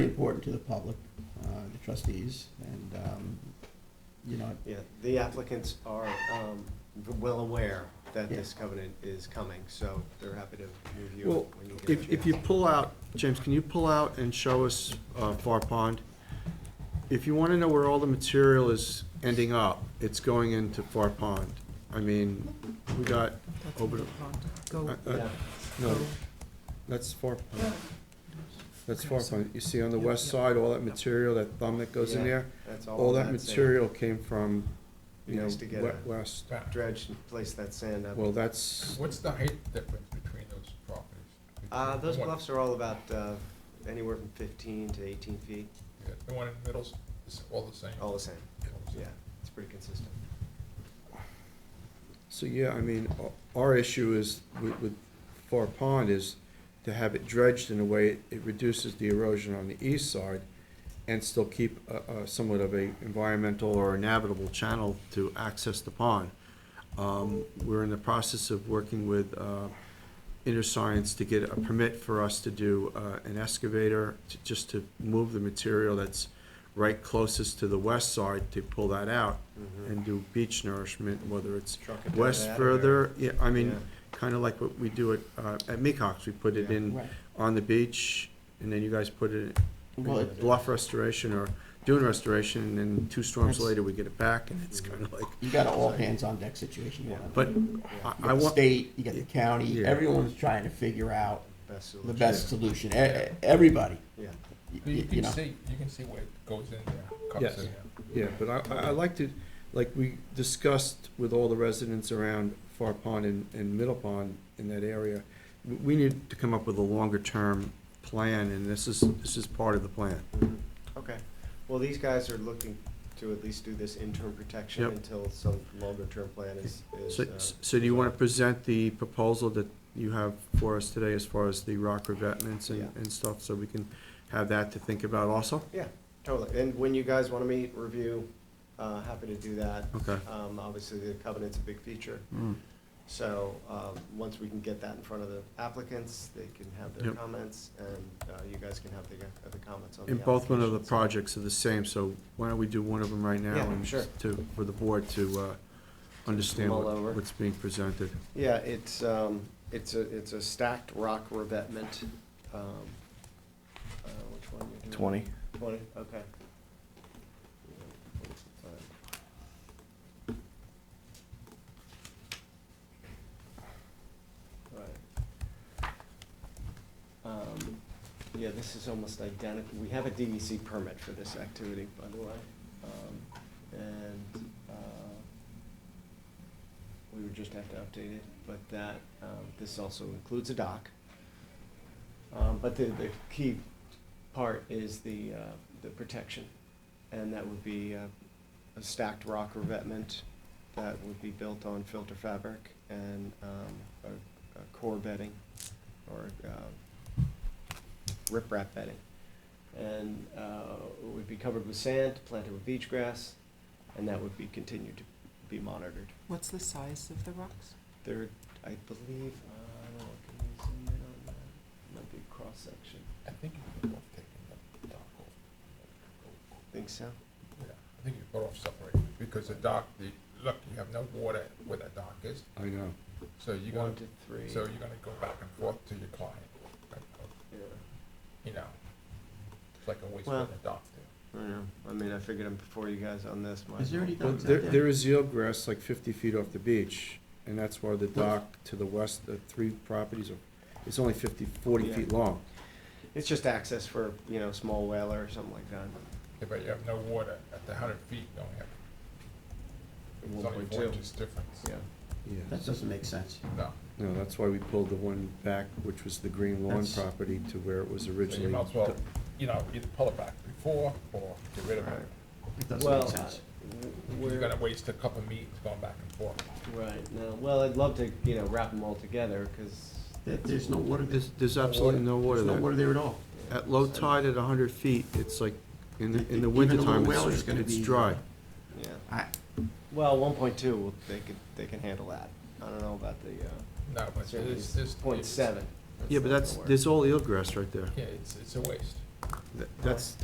important to the public, uh, the trustees, and, um, you know, Yeah, the applicants are um, well aware that Yeah. this covenant is coming, so they're happy to review Well, it when you get a if, if you pull out, James, can you pull out and show us uh, Far Pond? If you want to know where all the material is ending up, it's going into Far Pond. I mean, we got, over the- Go, uh, Yeah. uh, no, that's Far Pond. That's Far Pond. You see on the west side, all that material, that thumb that goes in Yeah, there, That's all that sand. material came from, you know, Nice to get we- a- west. Dredge and place that sand up. Well, that's, What's the height difference between those properties? Uh, Those What- bluffs are all about uh, anywhere from 15 to 18 feet, yeah, The one in the middle's, is all the same? all the same. All the same. Oh, Yeah, it's pretty consistent. So, yeah, I mean, o- our issue is with, with Far Pond is to have it dredged in a way it reduces the erosion on the east side and still keep a, a somewhat of a environmental or navigable channel to access the pond. Um, we're in the process of working with, uh, InterScience to get a permit for us to do, uh, an excavator to, just to move the material that's right closest to the west side to pull that out and do beach nourishment, whether it's Mm-hmm. Truck it down Mm-hmm. west that or- further, yeah, I mean, Yeah. kind of like what we do at, uh, at Mecox, we put it Yeah. in right, on the beach, and then you guys put it Well, in it- bluff restoration or dune restoration, and then two storms That's- later, we get it back, and it's kind of like, you got an all hands on deck situation going on. but Yeah, I- You I got the want, state, you got the county, Yeah. everyone's trying to figure out Best the solution. best solution, e- e- everybody, y- Yeah, You y- you you can know. see, you can see where it goes in there. comes Yes. in there. yeah, but I, I- I like to, like we discussed with all the residents around Far Pond and, and Middle Pond in that area, we, we need to come up with a longer-term plan, and this is, this is part of the plan. Mhm. okay. Well, these guys are looking to at least do this interim protection Yep. until some longer-term plan is. is, So, uh, so do you want to present the proposal that you have for us today as far as the rock revetments and, Yeah. and stuff, so we can have that to think about also? Yeah, totally. And when you guys want to meet, review, uh, happy to do that. Okay. Mm. Um, Obviously, the covenant's a big feature. So um, once we can get that in front of the applicants, they can have their Yep. comments, and uh, you guys can have the uh, the comments on the And both one of the applications. projects are the same, so why don't we do one of them right now? Yeah, and sure. To, for the board to, uh, understand Mull what- over. what's being presented. Yeah, it's, um, it's a, it's a stacked rock revetment. um, uh, Which one you doing? Twenty. Twenty, okay. Right. Um, Yeah, this is almost identical, we have a DEC permit for this activity, by the way. Um, And uh, we would just have to update it, but that, um, this also includes a dock. Um, But the, the key part is the, uh, the protection, and that would be uh, a stacked rock revetment that would be built on filter fabric and um, a, a core bedding or um, riprap bedding. And uh, it would be covered with sand, planted with beach grass, and that would be continued to be monitored. what's the size of the rocks? There, I believe, uh, I don't know, can you zoom in on that? Might be a cross-section, I think you could have taken the dock off. think so? Yeah, I think you put off separating, because the dock, the, look, you have no water where that dock is, I know. so you're One to gonna, three. so you're gonna go back and forth to your client. like, Yeah, You know, it's like a waste Well- of the dock there. I know, I mean, I figured I'm before you guys on this, might. Is there as any well. Well, Dock's out there, there. there is yield grass like fifty feet off the beach, and that's why the dock to the west, the three properties are, it's only fifty, forty Yeah. feet long. It's just access for, you know, small whaler or something like that. Yeah, but you have no water at the hundred feet, you only have, it's One only point four two, inches difference. yeah. Yeah. That doesn't make sense. No, No, that's why we pulled the one back, which was the green lawn That's- property to where it was so you originally. might as well, you know, either pull it back before or get rid of it. Right. It doesn't Well, make sense. You're we're, gonna waste a couple of meetings going back and forth. right, no, well, I'd love to, you know, wrap them all together, cause. There- There's no water, there. There's, there's absolutely no water there's no water there. there at all. At low tide at hundred feet, it's like, in the, in Even a the little wintertime, well is it's, gonna it's be- dry. Yeah, I, well, one point two, well, they could, they can handle that. I don't know about the, uh, No, but certainly it's, it's. point it's- seven. Yeah, but not that's, gonna work. there's all eelgrass right there. Yeah, it's, it's a waste. That- That's,